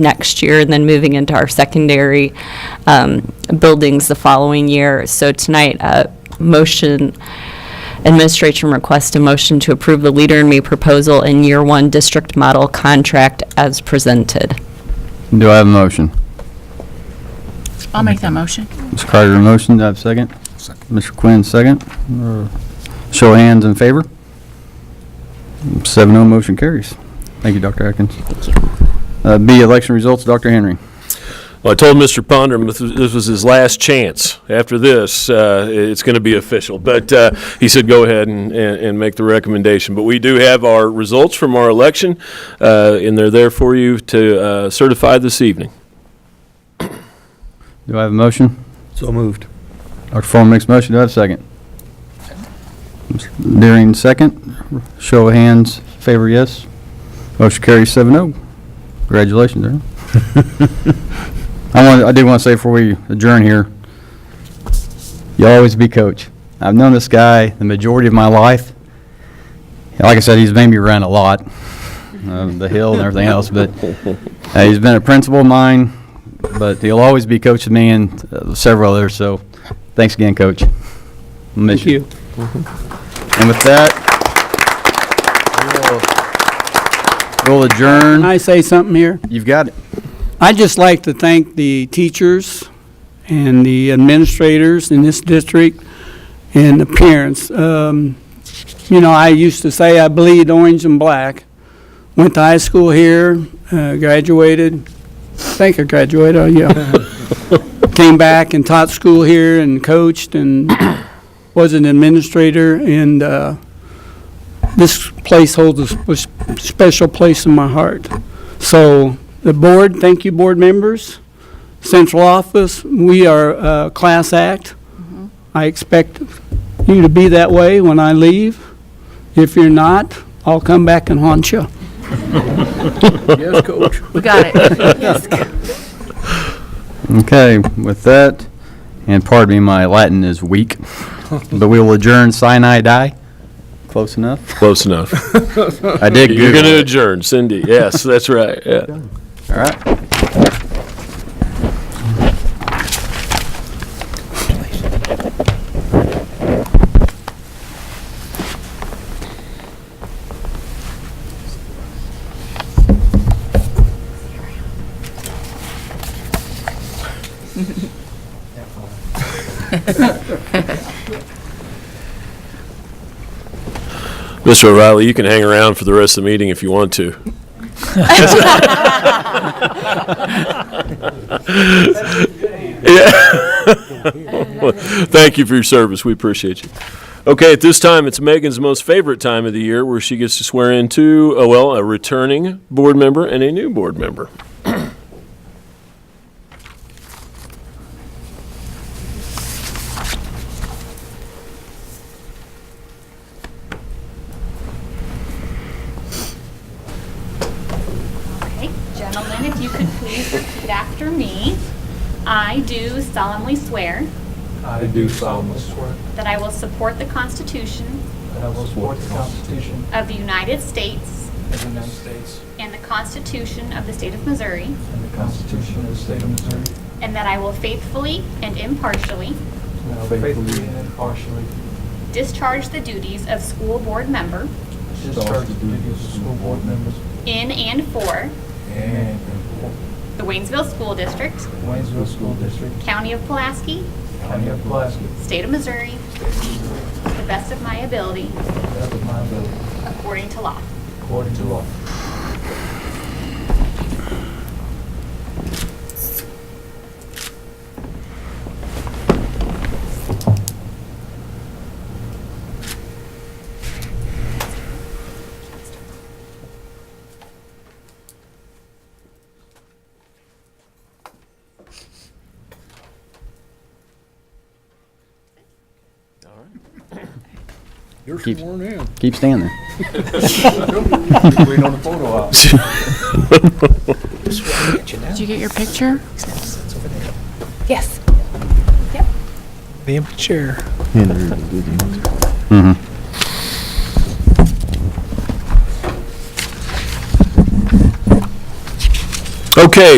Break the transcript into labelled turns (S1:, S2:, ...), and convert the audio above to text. S1: next year, and then moving into our secondary um, buildings the following year. So tonight, uh, motion, administration requests a motion to approve the Leader in Me proposal and Year One District Model Contract as presented.
S2: Do I have a motion?
S3: I'll make that motion.
S2: Ms. Carter, motion, do I have a second? Mr. Quinn, second. Uh, Show of hands in favor. Seven oh, motion carries. Thank you, Dr. Atkins. Thank you. B, election results, Dr. Henry.
S4: Well, I told Mr. Ponder this was- this was his last chance. After this, uh, it's going to be official. But uh, he said, go ahead and, and and make the recommendation. But we do have our results from our election, uh, and they're there for you to uh, certify this evening.
S2: Do I have a motion?
S5: So moved.
S2: Dr. Form makes a motion, do I have a second? Mr. Deering, second. Show of hands, favor, yes. Motion carries seven oh. Congratulations, Darrell. I want, I did want to say before we adjourn here, you'll always be coach. I've known this guy the majority of my life. Like I said, he's made me run a lot, uh, the hill and everything else, but uh, he's been a principal of mine, but he'll always be coaching me and uh, several others, so thanks again, coach. Miss you. And with that, we'll we'll adjourn.
S6: Can I say something here?
S2: You've got it.
S6: I'd just like to thank the teachers and the administrators in this district and the parents. Um, You know, I used to say I bleed orange and black. Went to high school here, uh, graduated, I think I graduated, oh, yeah. Came back and taught school here and coached and was an administrator. And uh, this place holds a sp- special place in my heart. So the board, thank you, board members. Central office, we are a class act. I expect you to be that way when I leave. If you're not, I'll come back and haunt you.
S5: Yes, coach.
S3: We got it.
S2: Okay, with that, and pardon me, my Latin is weak, but we will adjourn Sinai die. Close enough.
S4: Close enough.
S2: I did
S4: You're going to
S2: Google it.
S4: adjourn, Cindy. Yes, that's right. Yeah.
S2: All right.
S4: Mr. O'Reilly, you can hang around for the rest of the meeting if you want to. Yeah. Thank you for your service. We appreciate you. Okay, at this time, it's Megan's most favorite time of the year where she gets to swear in two, oh, well, a returning board member and a new board member.
S7: Okay, gentlemen, if you could please repeat after me. I do solemnly swear
S8: I do solemnly swear
S7: that I will support the Constitution
S8: that I will support the Constitution
S7: of the United States
S8: of the United States
S7: and the Constitution of the State of Missouri,
S8: and the Constitution of the State of Missouri,
S7: and that I will faithfully and impartially
S8: and I will faithfully and impartially
S7: discharge the duties of school board member
S8: discharge the duties of school board members
S7: in and for
S8: and
S7: the Waynesville School District,
S8: Waynesville School District,
S7: County of Pulaski,
S8: County of Pulaski,
S7: State of Missouri, to the best of my ability,
S8: to the best of my ability,
S7: according to law.
S8: according to law.
S5: You're
S2: Keep-
S5: sworn in.
S2: Keep standing.
S8: Waiting on the photo op.
S3: Did you get your picture?
S9: Yes. Yep. Damn chair.
S2: Okay,